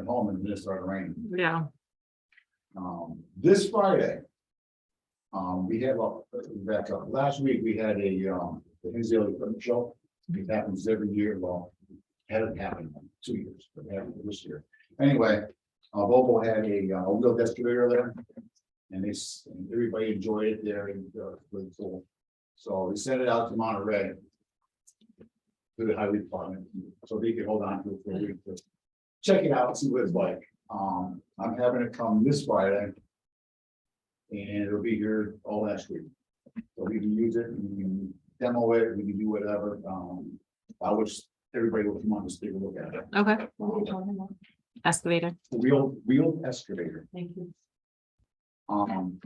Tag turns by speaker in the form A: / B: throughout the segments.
A: home and it just started raining.
B: yeah,
A: Um, this Friday. Um, we have a, back up, last week we had a, um, the Hinsdale Equipment Show. It happens every year, well, hasn't happened in two years, but it happened this year. Anyway, uh, Volvo had a, uh, wheel excavator there. And they, s- and everybody enjoyed it there and, uh, really cool. So we sent it out to Monterey. To the highway department, so they could hold on to it for a week to check it out, see what it's like. Um, I'm having it come this Friday. And it'll be here all last week. So we can use it, we can demo it, we can do whatever, um, I wish everybody would come on just take a look at it.
B: okay,
A: Um,
B: excavator,
A: Wheel, wheel excavator,
B: thank you.
A: um.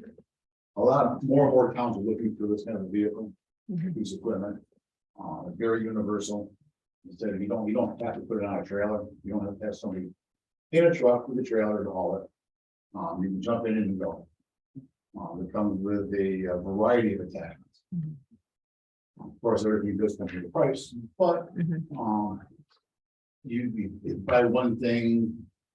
A: A lot of more and more towns are looking for this kind of vehicle,
B: Mhm.
A: piece of equipment, uh, very universal. Instead of, you don't, you don't have to put it on a trailer, you don't have to have somebody in a truck with a trailer to haul it. Um, you can jump in and go. Um, it comes with a uh, variety of attachments.
B: Mhm.
A: Of course, everything goes into the price, but,
B: Mhm.
A: um. You, you- you buy one thing,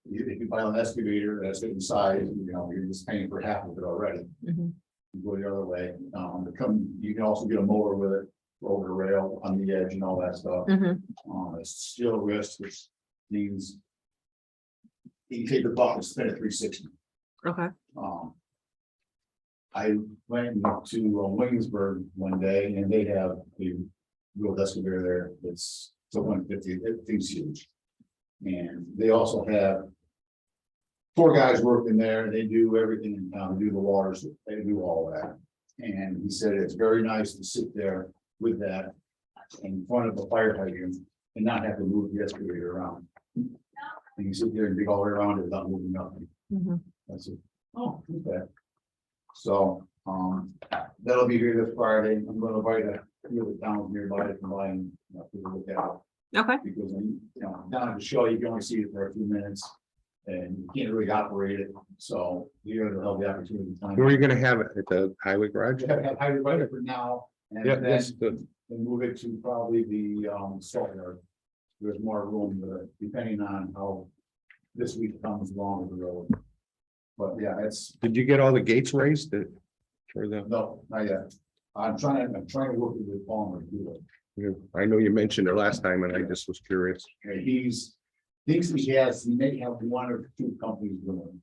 A: you- if you buy an excavator, that's inside, you know, you're just paying for half of it already
B: Mhm.
A: you go the other way, um, to come, you can also get a mower with it, over the rail on the edge and all that stuff.
B: Mhm.
A: Um, it's steel wrist, which means. You can take the buck and spin it three sixty,
B: Okay,
A: um. I went to uh, Williamsburg one day and they have the real excavator there, it's to one fifty, that thing's huge. And they also have. Four guys working there, they do everything, in town, do the waters, they do all that. And he said it's very nice to sit there with that in front of a fire hydrant and not have to move the excavator around. And you sit there and dig all the way around it without moving nothing.
B: Mhm.
A: I said, oh, okay. So, um, that'll be here this Friday. I'm gonna invite a few of the towns nearby to come by and, you know, take a look at it.
B: okay,
A: Because, when you you know, down at the show, you can only see it for a few minutes. And you can't really operate it, so here they'll have the opportunity. to
C: Where are
A: time.
C: you gonna have it? At the highway garage?
A: We have have highway right for now. and
C: Yeah,
A: then-
C: that's the,
A: and move it to probably the um salt yard. There's more room with it, depending on how this week comes along with the road. But yeah, it's,
C: did you get all the gates raised that- for the,
A: no, not yet. I'm trying, I'm trying to work with Palmer to do it.
C: I know you mentioned it last time and I just was curious.
A: And he's, thinks he has, he may have one or two companies doing.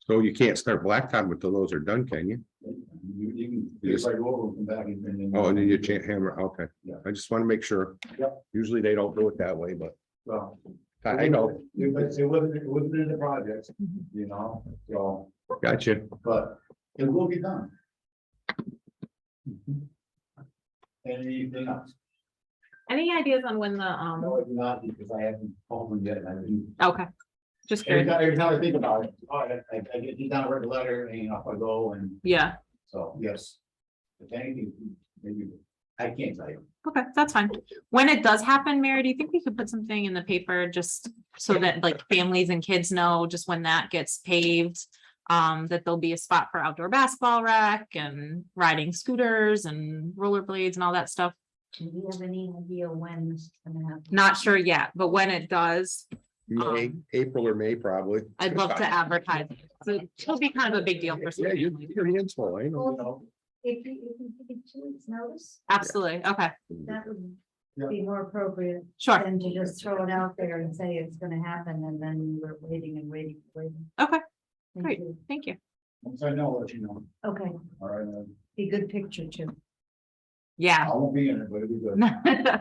C: So you can't start blacktop until those are done, can you?
A: it. You you can, it's like over and come back and then.
C: Oh, and then you can't hammer, okay.
A: Yeah.
C: I just want to make sure.
A: Yep.
C: Usually they don't do it that way, but
A: Well,
C: I know,
A: It was, it wasn't, it wasn't in the project,
B: Mhm.
A: you know, so,
C: gotcha.
A: but it will be done. Mm-hmm. Anything else?
B: any ideas on when the,
A: No,
B: um,
A: it's not, because I haven't called them yet, and I didn't.
B: okay, just
A: Every
B: curious,
A: time, every time I think about it, all right, I, I get, you down, write a letter, and off I go, and
B: yeah,
A: so, yes. If anything, maybe, I can't tell you.
B: okay, that's fine. When it does happen, Mary, do you think we could put something in the paper just so that like families and kids know just when that gets paved? Um, that there'll be a spot for outdoor basketball rack and riding scooters and rollerblades and all that stuff?
D: Do you have any idea when this is gonna happen?
B: Not sure yet, but when it does,
C: May,
B: Um,
C: April or May, probably.
B: I'd love to advertise. it. So it'll be kind of a big deal for some
C: Yeah, you,
B: families.
C: your hands full, I know.
A: You know,
D: If you, if you give it two weeks notice,
B: Absolutely, okay,
D: that would
A: Yeah.
D: be more appropriate
B: sure,
D: than to just throw it out there and say it's gonna happen and then we're waiting and waiting, waiting.
B: Okay,
D: Thank
B: great.
D: you.
B: thank you.
A: once I know, I'll let you know,
D: Okay,
A: all right, uh,
D: be good picture too.
B: Yeah.
A: I won't be in it, but it'll be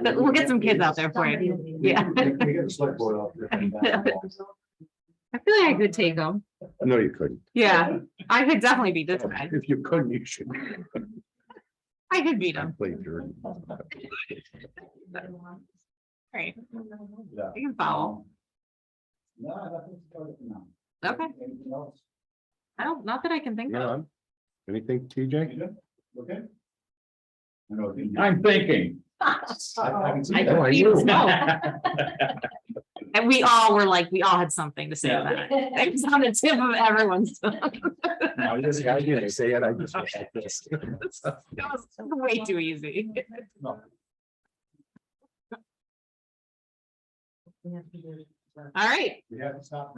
A: good.
B: We'll get some kids out there for
D: Somebody
B: you.
D: will be-
B: Yeah.
A: We can- we can get a select board out there.
B: I feel like I could take them.
C: No, you couldn't.
B: Yeah, I could definitely beat this guy.
C: If you couldn't, you should.
B: I could beat him.
C: play Jordan.
B: Right,
A: Yeah. Um,
B: I can follow.
A: No, nothing's going on.
B: Okay,
A: Anything else?
B: I don't, not that I can think
C: No,
B: of.
C: I'm- Anything, TJ?
A: You good? Okay? I know. I'm thinking.
B: I
C: No, I
B: confused,
C: do.
B: no. And we all were like, we all had something to say about it. It was on the tip of everyone's. tongue.
C: No, this guy didn't say it, I just.
B: That was Way too easy.
D: We have to do it.
B: All right.
A: We haven't stopped.